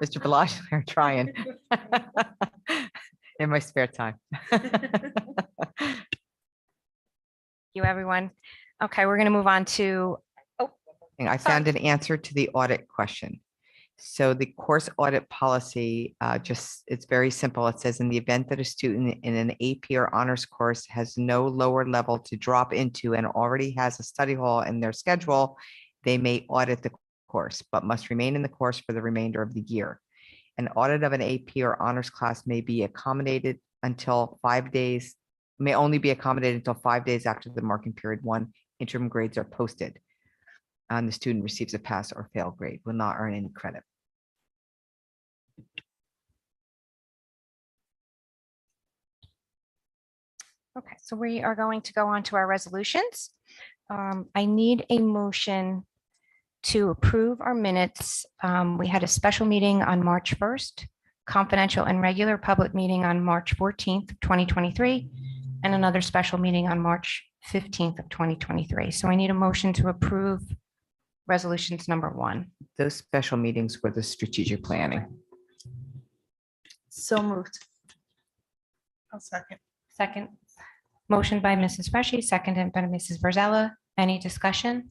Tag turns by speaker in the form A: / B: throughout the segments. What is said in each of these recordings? A: Mr. Belash, I'm trying. In my spare time.
B: you, everyone. Okay, we're going to move on to,
A: And I
B: Sorry.
A: found an answer to the audit question. So the course audit policy, uh, just, it's very simple. It says in the event that a student in an AP or honors course has no lower level to drop into and already has a study hall in their schedule, they may audit the course, but must remain in the course for the remainder of the year. An audit of an AP or honors class may be accommodated until five days, may only be accommodated until five days after the marking period one interim grades are posted and the student receives a pass or fail grade, will not earn any credit.
B: okay, so we are going to go on to our resolutions. Um, I need a motion to approve our minutes. Um, We had a special meeting on March 1st, confidential and regular public meeting on March 14th, 2023, and another special meeting on March 15th of 2023. So I need a motion to approve resolutions number one.
A: Those special meetings were the strategic planning.
C: So moved.
D: I'll second.
B: Second. Motion by Mrs. Freshy, seconded by Mrs. Virzella. Any discussion?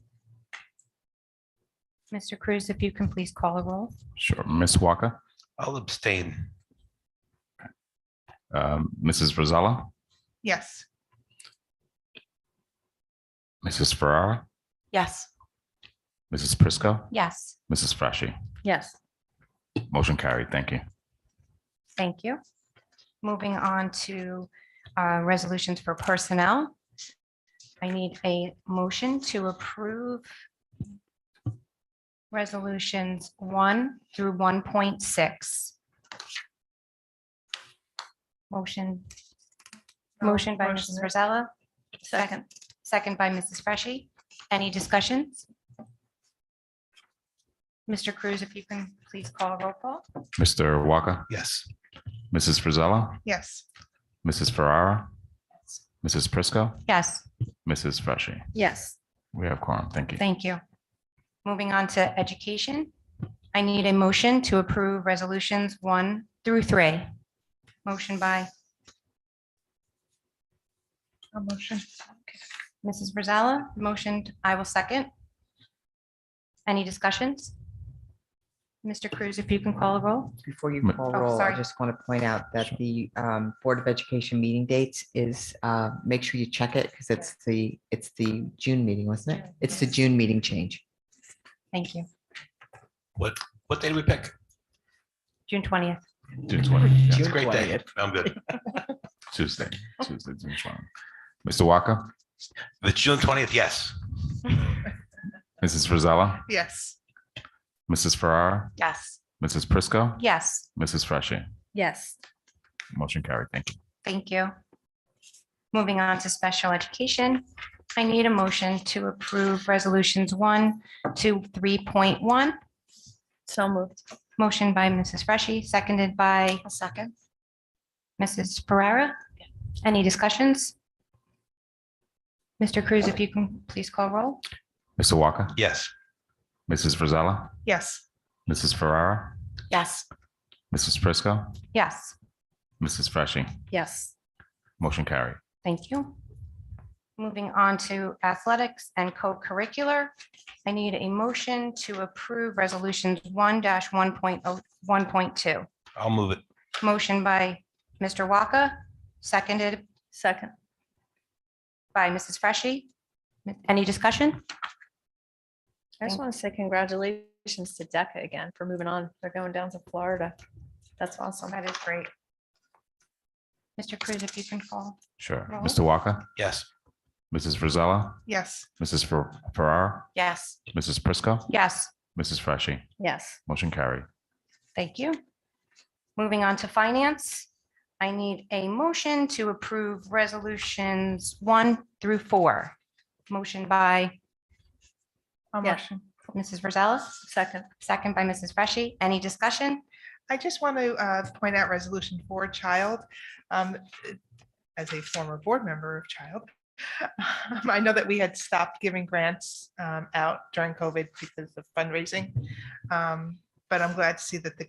B: Mr. Cruz, if you can please call a roll.
E: Sure. Ms. Walker,
F: I'll abstain.
E: um, Mrs. Rosella,
D: Yes.
E: Mrs. Ferrara,
C: Yes.
E: Mrs. Prisco,
B: Yes.
E: Mrs. Freshy.
C: Yes.
E: Motion carried. Thank you.
B: Thank you. Moving on to uh, resolutions for personnel. I need a motion to approve resolutions one through 1.6. Motion, motion by Mrs. Rosella. Second. Second by Mrs. Freshy. Any discussions? Mr. Cruz, if you can please call roll call.
E: Mr. Walker,
F: Yes.
E: Mrs. Rosella,
D: Yes.
E: Mrs. Ferrara, Mrs. Prisco,
B: Yes.
E: Mrs. Freshy.
C: Yes.
E: We have quorum. Thank you.
B: Thank you. Moving on to education, I need a motion to approve resolutions one through three. Motion by
D: A motion.
B: Mrs. Brazala, motion, I will second. Any discussions? Mr. Cruz, if you can call a roll.
A: Before you
E: Ma-
A: call
B: Oh,
A: roll, I
B: sorry.
A: just want to point out that the um, Board of Education meeting dates is, uh, make sure you check it because it's the, it's the June meeting, wasn't it? It's the June meeting change.
B: Thank you.
F: What day do we pick?
B: June twentieth.
E: June 20th,
F: It's
E: yes.
F: a great day. I'm good.
E: Tuesday, Tuesday, June 20th. Mr. Walker,
F: The June twentieth, yes.
E: Mrs. Rosella,
D: Yes.
E: Mrs. Ferrara,
C: Yes.
E: Mrs. Prisco,
B: Yes,
E: Mrs. Freshy.
C: Yes.
E: Motion carried. Thank you.
B: thank you. Moving on to special education, I need a motion to approve resolutions one to three point one.
C: So moved.
B: Motion by Mrs. Freshy, seconded by
C: A second.
B: Mrs. Pereira. Any discussions? Mr. Cruz, if you can please call roll.
E: Mr. Walker,
F: Yes.
E: Mrs. Rosella,
D: Yes.
E: Mrs. Ferrara,
C: Yes.
E: Mrs. Prisco,
B: Yes,
E: Mrs. Freshy.
C: Yes.
E: Motion carried.
B: thank you. Moving on to athletics and co-curricular. I need a motion to approve resolutions one oh, 1.0 1.2.
F: I'll move it.
B: Motion by Mr. Waka, seconded
C: Second.
B: by Mrs. Freshy. Any discussion?
C: I just
B: Thank-
C: want to say congratulations to DECA again for moving on. They're going down to Florida. That's awesome.
B: That is great. Mr. Cruz, if you can call.
E: Sure.
B: Roll.
E: Mr. Walker,
F: Yes.
E: Mrs. Rosella,
D: Yes.
E: Mrs. Fer- Ferrara,
C: Yes.
E: Mrs. Prisco,
B: Yes.
E: Mrs. Freshy.
C: Yes.
E: Motion carried.
B: Thank you. Moving on to finance, I need a motion to approve resolutions one through four. Motion by
D: A
C: Yeah.
D: motion.
B: Mrs. Rosales,
C: Second.
B: second by Mrs. Freshy. Any discussion?
D: I just want to uh, point out resolution for child. um, As a former board member of child, I know that we had stopped giving grants um, out during COVID because of fundraising. Um, But I'm glad to see that the